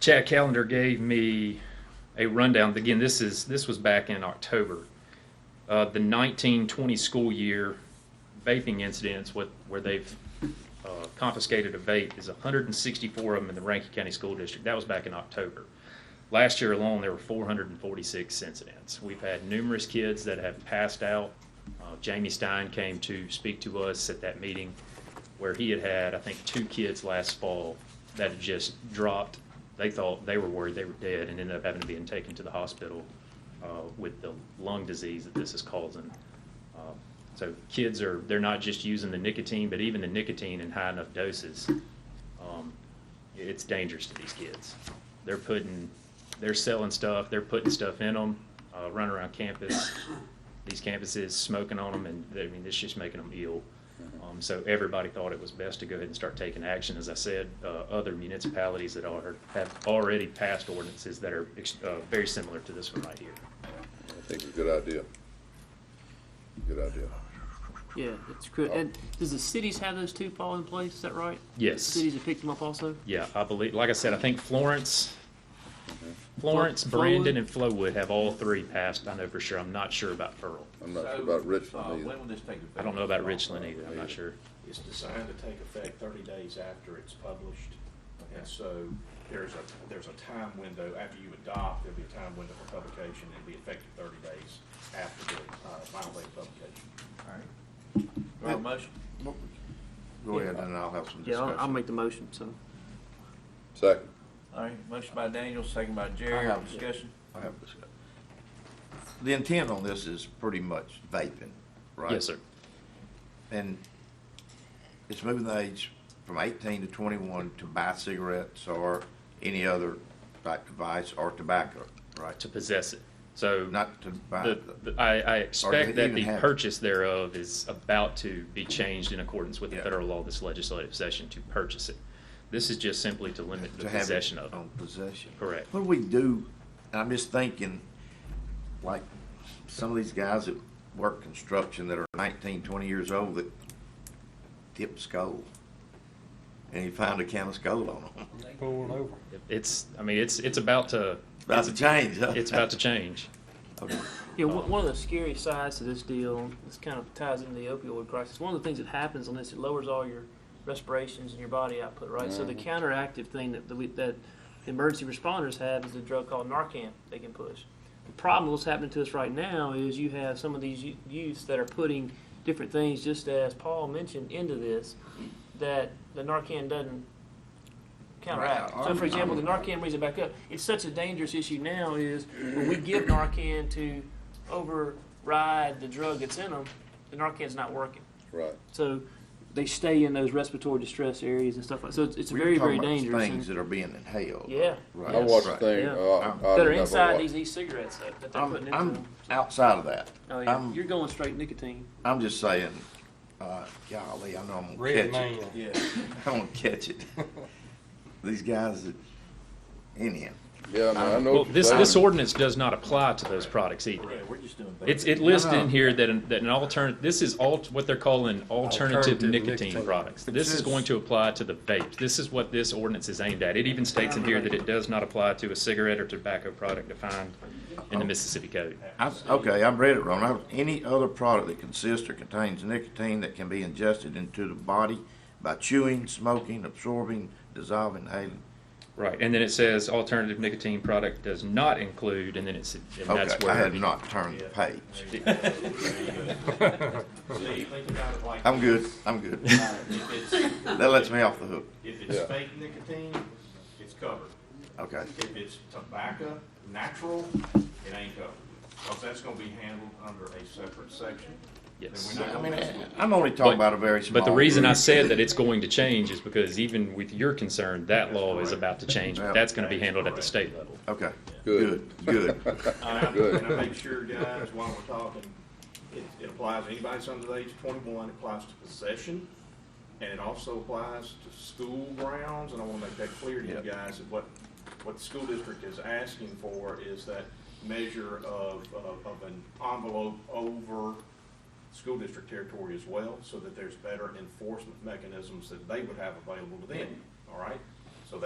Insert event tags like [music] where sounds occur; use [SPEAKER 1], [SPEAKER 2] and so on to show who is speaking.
[SPEAKER 1] Chad Callender gave me a rundown. Again, this is this was back in October. Uh, the 1920 school year vaping incidents with, where they've uh, confiscated a vape is 164 of them in the Rankin County School District. That was back in October. Last year alone, there were 446 incidents. We've had numerous kids that have passed out. Uh, Jamie Stein came to speak to us at that meeting where he had had, I think, two kids last fall that had just dropped. They thought they were worried they were dead and ended up having to be taken to the hospital uh, with the lung disease that this is causing. Uh, So kids are, they're not just using the nicotine, but even the nicotine in high enough doses, um, it's dangerous to these kids. They're putting, they're selling stuff, they're putting stuff in them, uh, running around campus, these campuses, smoking on them, and, I mean, it's just making them ill. Um, so everybody thought it was best to go ahead and start taking action. As I said, uh, other municipalities that are, have already passed ordinances that are, ex- uh, very similar to this one right here.
[SPEAKER 2] I think it's a good idea. Good idea.
[SPEAKER 3] Yeah, it's good. And does the cities have those two fall in place? Is that right?
[SPEAKER 1] Yes.
[SPEAKER 3] Cities have picked them up also?
[SPEAKER 1] Yeah, I believe, like I said, I think Florence, Florence,
[SPEAKER 3] Flo-
[SPEAKER 1] Brandon, and Flowood have all three passed, I know for sure. I'm not sure about Pearl.
[SPEAKER 2] I'm not sure
[SPEAKER 4] So,
[SPEAKER 2] about
[SPEAKER 4] uh,
[SPEAKER 2] Richmond either.
[SPEAKER 4] When will this take effect?
[SPEAKER 1] I don't know about Richland either, I'm not sure.
[SPEAKER 5] It's designed to take effect thirty days after it's published. And so there's a, there's a time window, after you adopt, there'll be a time window for publication. It'll be effective thirty days after the uh, final day of publication.
[SPEAKER 4] All right. Do I have a motion?
[SPEAKER 6] Go ahead, and I'll have some
[SPEAKER 3] Yeah, I'll, I'll
[SPEAKER 6] discussion.
[SPEAKER 3] make the motion, so.
[SPEAKER 2] Second,
[SPEAKER 4] All right, motion by Daniel, second by Jerry,
[SPEAKER 6] have-
[SPEAKER 4] discussion.
[SPEAKER 6] I have a discussion. The intent on this is pretty much vaping, right?
[SPEAKER 1] Yes, sir.
[SPEAKER 6] And it's moving the age from eighteen to twenty-one to buy cigarettes or any other type device or tobacco, right?
[SPEAKER 1] To possess it. So
[SPEAKER 6] Not to buy,
[SPEAKER 1] the, the- I, I
[SPEAKER 6] they
[SPEAKER 1] expect that
[SPEAKER 6] even
[SPEAKER 1] the
[SPEAKER 6] have it?
[SPEAKER 1] purchase thereof is about to be changed in accordance with the
[SPEAKER 6] Yeah.
[SPEAKER 1] federal law this legislative session to purchase it. This is just simply to limit the
[SPEAKER 6] to have it
[SPEAKER 1] possession of it.
[SPEAKER 6] on possession.
[SPEAKER 1] Correct.
[SPEAKER 6] What do we do, and I'm just thinking, like, some of these guys that work construction that are 19, 20 years old that tip skull. And you find a can of skull on them.
[SPEAKER 1] It's, I mean, it's, it's about to,
[SPEAKER 6] [laughs] About to change, huh?
[SPEAKER 1] it's about to change.
[SPEAKER 6] Okay.
[SPEAKER 3] Yeah, one one of the scary sides to this deal, this kind of ties into the opioid crisis. One of the things that happens on this, it lowers all your respirations and your body output, right? So the counteractive thing that, that, we, that the emergency responders have is a drug called Narcan they can push. The problem that's happening to us right now is you have some of these yo- youths that are putting different things, just as Paul mentioned, into this that the Narcan doesn't counteract.
[SPEAKER 6] Right,
[SPEAKER 3] So,
[SPEAKER 6] I'm-
[SPEAKER 3] for example, the
[SPEAKER 6] I'm-
[SPEAKER 3] Narcan brings it back up. It's such a dangerous issue now is when we give Narcan to override the drug that's in them, the Narcan's not working.
[SPEAKER 2] right.
[SPEAKER 3] So they stay in those respiratory distress areas and stuff like, so it's, it's
[SPEAKER 6] We were
[SPEAKER 3] very, very
[SPEAKER 6] talking about
[SPEAKER 3] dangerous.
[SPEAKER 6] Things
[SPEAKER 3] and-
[SPEAKER 6] that are being inhaled.
[SPEAKER 3] Yeah.
[SPEAKER 6] Right.
[SPEAKER 2] I watched a
[SPEAKER 6] Right.
[SPEAKER 2] thing,
[SPEAKER 3] Yeah.
[SPEAKER 2] uh, I
[SPEAKER 6] That
[SPEAKER 2] don't
[SPEAKER 3] That
[SPEAKER 2] know
[SPEAKER 3] are
[SPEAKER 2] if I
[SPEAKER 3] inside
[SPEAKER 2] watched-
[SPEAKER 3] these e-cigarettes though, that they're putting
[SPEAKER 6] I'm,
[SPEAKER 3] into
[SPEAKER 6] I'm
[SPEAKER 3] them.
[SPEAKER 6] outside of that.
[SPEAKER 3] Oh yeah,
[SPEAKER 6] I'm-
[SPEAKER 3] you're going straight nicotine.
[SPEAKER 6] I'm just saying, uh, golly, I know I'm gonna
[SPEAKER 7] Red
[SPEAKER 6] catch
[SPEAKER 7] man.
[SPEAKER 6] it.
[SPEAKER 4] Yeah.
[SPEAKER 6] I'm gonna catch it. [laughs] These guys that, anyhow.
[SPEAKER 2] Yeah, man, I
[SPEAKER 3] Um,
[SPEAKER 2] know
[SPEAKER 1] Well,
[SPEAKER 2] what you're
[SPEAKER 1] this, this
[SPEAKER 2] saying.
[SPEAKER 1] ordinance does not apply to those products either.
[SPEAKER 4] Yeah, we're just doing.
[SPEAKER 1] It's,
[SPEAKER 4] vaping.
[SPEAKER 1] it lists
[SPEAKER 6] No, no.
[SPEAKER 1] in here that an, that an alternate, this is all, what they're calling alternative
[SPEAKER 7] Alternative
[SPEAKER 1] nicotine
[SPEAKER 7] nicotine.
[SPEAKER 1] products.
[SPEAKER 6] But
[SPEAKER 1] This is
[SPEAKER 6] this-
[SPEAKER 1] going to apply to the vape. This is what this ordinance is aimed at. It even states in here that it does not apply to a cigarette or tobacco product defined in the Mississippi Code.
[SPEAKER 6] I, okay, I've read it wrong. I- Any other product that consists or contains nicotine that can be ingested into the body by chewing, smoking, absorbing, dissolving, inhaling.
[SPEAKER 1] Right, and then it says alternative nicotine product does not include, and then it's, and that's
[SPEAKER 6] Okay, I
[SPEAKER 1] where.
[SPEAKER 6] had not turned the page. [laughs]
[SPEAKER 5] See, think about it like.
[SPEAKER 6] I'm good, I'm
[SPEAKER 1] [laughs]
[SPEAKER 6] good.
[SPEAKER 5] If it's,
[SPEAKER 6] That lets me off the hook.
[SPEAKER 5] if
[SPEAKER 2] Yeah.
[SPEAKER 5] it's fake nicotine, it's covered.
[SPEAKER 6] Okay.
[SPEAKER 5] If it's tobacco, natural, it ain't covered. Cause that's gonna be handled under a separate
[SPEAKER 1] [laughs]
[SPEAKER 5] section.
[SPEAKER 1] Yes.
[SPEAKER 5] And we're not
[SPEAKER 6] I
[SPEAKER 5] gonna
[SPEAKER 6] mean,
[SPEAKER 5] mess with it.
[SPEAKER 6] I'm only talking about a very small.
[SPEAKER 1] But the reason I
[SPEAKER 6] group.
[SPEAKER 1] said that it's going to change is because even with your concern, that law is about to change, but
[SPEAKER 6] Yeah.
[SPEAKER 1] that's gonna be handled at the state level.
[SPEAKER 6] Okay, good,
[SPEAKER 2] Good.
[SPEAKER 6] good.
[SPEAKER 5] And I,
[SPEAKER 2] Good.
[SPEAKER 5] and I make sure, guys, while we're talking, it, it applies, anybody's under the age of twenty-one, it applies to possession, and it also applies to school grounds, and I wanna make that clear to you
[SPEAKER 6] Yep.
[SPEAKER 5] guys, that what, what the school district is asking for is that measure of, of, of an envelope over school district territory as well, so that there's better enforcement mechanisms that they would have available to them, all right?